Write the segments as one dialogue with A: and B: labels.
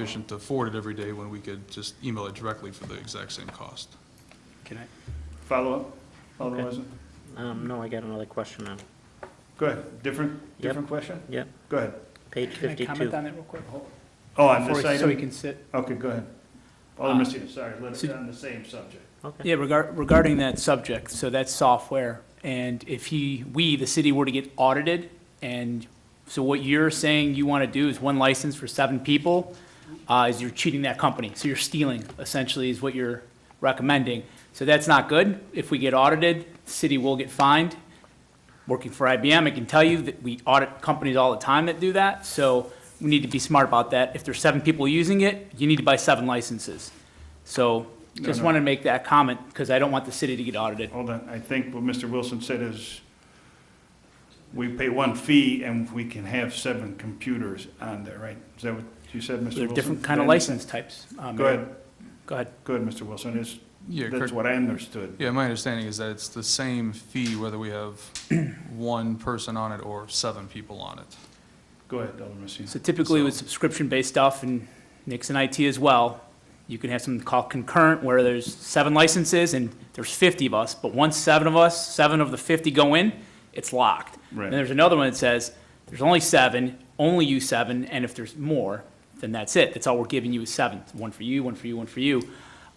A: efficient to forward it every day when we could just email it directly for the exact same cost.
B: Can I follow up? Follow
C: Okay.
B: up? Wesley?
C: Um, no, I got another question now.
B: Go ahead, different,
C: Yep.
B: different question?
C: Yep,
B: Go ahead.
C: page
D: Can I comment
C: fifty-two.
D: on that real quick?
B: Oh, on
D: Before
B: this
D: we- So we
B: item?
D: can sit.
B: Okay, go ahead. Alderman
D: Uh,
B: Stevenson, sorry, let's,
D: so-
B: on the same subject.
C: Okay,
D: Yeah, regar- regarding that subject, so that's software. And if he, we, the city, were to get audited, and so what you're saying you want to do is one license for seven people, uh, is you're cheating that company. So you're stealing, essentially, is what you're recommending. So that's not good. If we get audited, the city will get fined. Working for IBM, I can tell you that we audit companies all the time that do that. So we need to be smart about that. If there's seven people using it, you need to buy seven licenses. So just
B: no.
D: wanted to make that comment because I don't want the city to get audited.
B: Hold on, I think what Mr. Wilson said is we pay one fee and we can have seven computers on there, right? Is that what you said, Mr. Wilson?
D: There are different
B: Did
D: kind
B: I
D: of
B: understand?
D: license types. uh,
B: Go
D: Mayor.
B: ahead,
D: Go ahead.
B: go ahead, Mr. Wilson, it's,
A: Yeah,
B: that's
A: correct.
B: what I understood.
A: Yeah, my understanding is that it's the same fee whether we have one person on it or seven people on it.
B: Go ahead, Alderman Messina.
D: So typically with subscription-based stuff and Nixon IT as well, you can have something called concurrent where there's seven licenses and there's 50 of us, but once seven of us, seven of the 50 go in, it's locked.
B: Right.
D: And there's another one that says, there's only seven, only you seven, and if there's more, then that's it. That's all we're giving you is seven, one for you, one for you, one for you.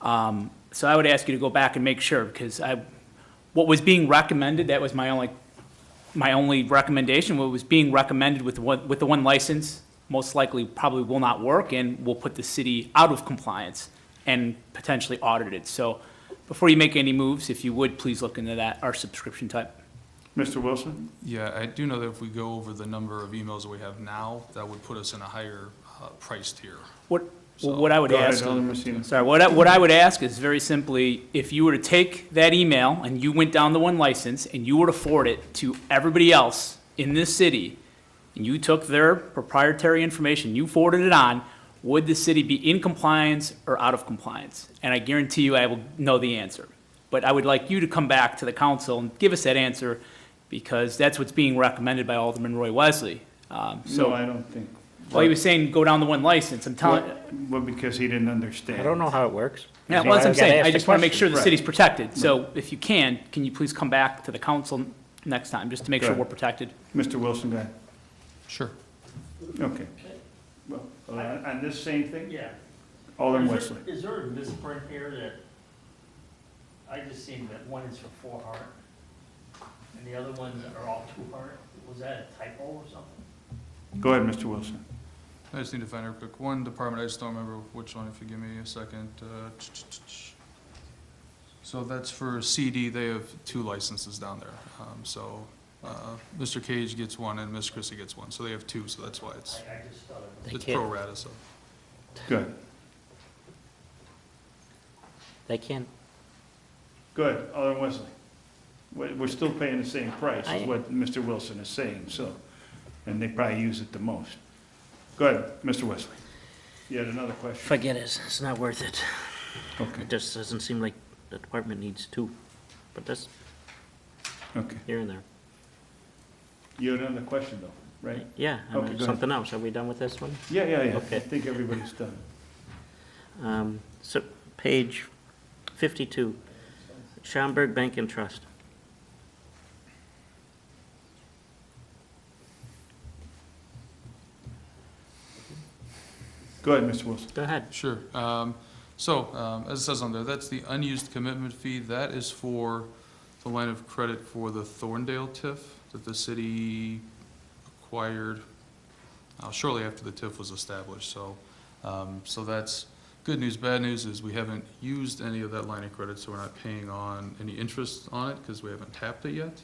D: Um, So I would ask you to go back and make sure, because I, what was being recommended, that was my only my only recommendation, what was being recommended with one, with the one license, most likely probably will not work and will put the city out of compliance and potentially audited. So before you make any moves, if you would, please look into that, our subscription type.
B: Mr. Wilson,
A: Yeah, I do know that if we go over the number of emails that we have now, that would put us in a higher uh, price tier.
D: What,
A: So-
D: what I would
B: go ahead,
D: ask,
B: Alderman Messina.
D: sorry, what I, what I would ask is very simply, if you were to take that email and you went down the one license and you were to forward it to everybody else in this city, and you took their proprietary information, you forwarded it on, would the city be in compliance or out of compliance? And I guarantee you I will know the answer. But I would like you to come back to the council and give us that answer, because that's what's being recommended by Alderman Roy Wesley. Um,
B: No,
D: So,
B: I don't think.
D: while he was saying go down the one license, I'm telling,
B: Well, because he didn't understand.
C: I don't know how it works.
D: Yeah,
C: So
D: well, that's what I'm
C: I've gotta
D: saying,
C: ask
D: I
C: the
D: just want to make sure
C: question.
D: the
B: right.
D: city's protected, so if you can, can you please come back to the council next time, just to make sure
B: Correct.
D: we're protected?
B: Mr. Wilson, go ahead.
A: Sure.
B: Okay. Well, on, on this same thing,
E: Yeah.
B: Alderman
E: Is there-
B: Wesley.
E: Is there a misprint here that, I just seen that one is for four heart, and the other ones are all two heart, was that a typo or something?
B: Go ahead, Mr. Wilson.
A: I just need to find out quick one department, I just don't remember which one, if you give me a second. uh, So that's for CD, they have two licenses down there. Um, So uh, Mr. Cage gets one and Ms. Chrissy gets one, so they have two, so that's why it's,
E: I, I just thought it was.
C: They
A: it's
C: can't-
A: pro rata, so.
B: Go ahead.
C: They can't,
B: Go ahead, Alderman Wesley. We're, we're still paying the same price,
C: I-
B: is what Mr. Wilson is saying, so, and they probably use it the most. Go ahead, Mr. Wesley. You had another question?
C: forget it, it's not worth it.
B: Okay,
C: It just doesn't seem like the department needs two, but that's
B: okay.
C: here and there.
B: You had another question, though, right?
C: Yeah, I
B: Okay,
C: mean,
B: go ahead.
C: something else, are we done with this one?
B: Yeah, yeah, yeah. I
C: Okay.
B: think everybody's done.
C: Um, so, page fifty-two, Schaumburg Bank and Trust.
B: Go ahead, Mr. Wilson.
C: Go ahead.
A: Sure. Um, So, um, as it says on there, that's the unused commitment fee. That is for the line of credit for the Thorndale TIF that the city acquired uh, shortly after the TIF was established. So, um, so that's, good news, bad news is we haven't used any of that line of credit, so we're not paying on any interest on it because we haven't tapped it yet.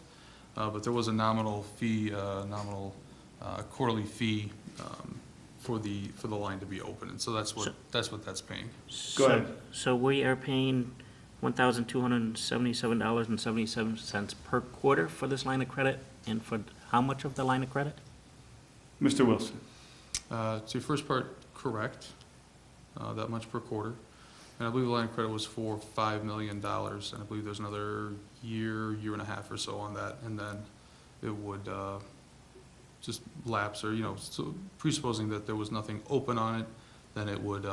A: Uh, But there was a nominal fee, uh, nominal uh, quarterly fee um, for the, for the line to be open. And so that's what,
C: So-
A: that's what that's paying.
B: Go
C: So-
B: ahead.
C: So we are paying one thousand two hundred and seventy-seven dollars and seventy-seven cents per quarter for this line of credit, and for how much of the line of credit?
B: Mr. Wilson.
A: Uh, To your first part, correct, uh, that much per quarter. And I believe the line of credit was for $5 million, and I believe there's another year, year and a half or so on that. And then it would uh, just lapse, or, you know, so presupposing that there was nothing open on it, then it would, uh,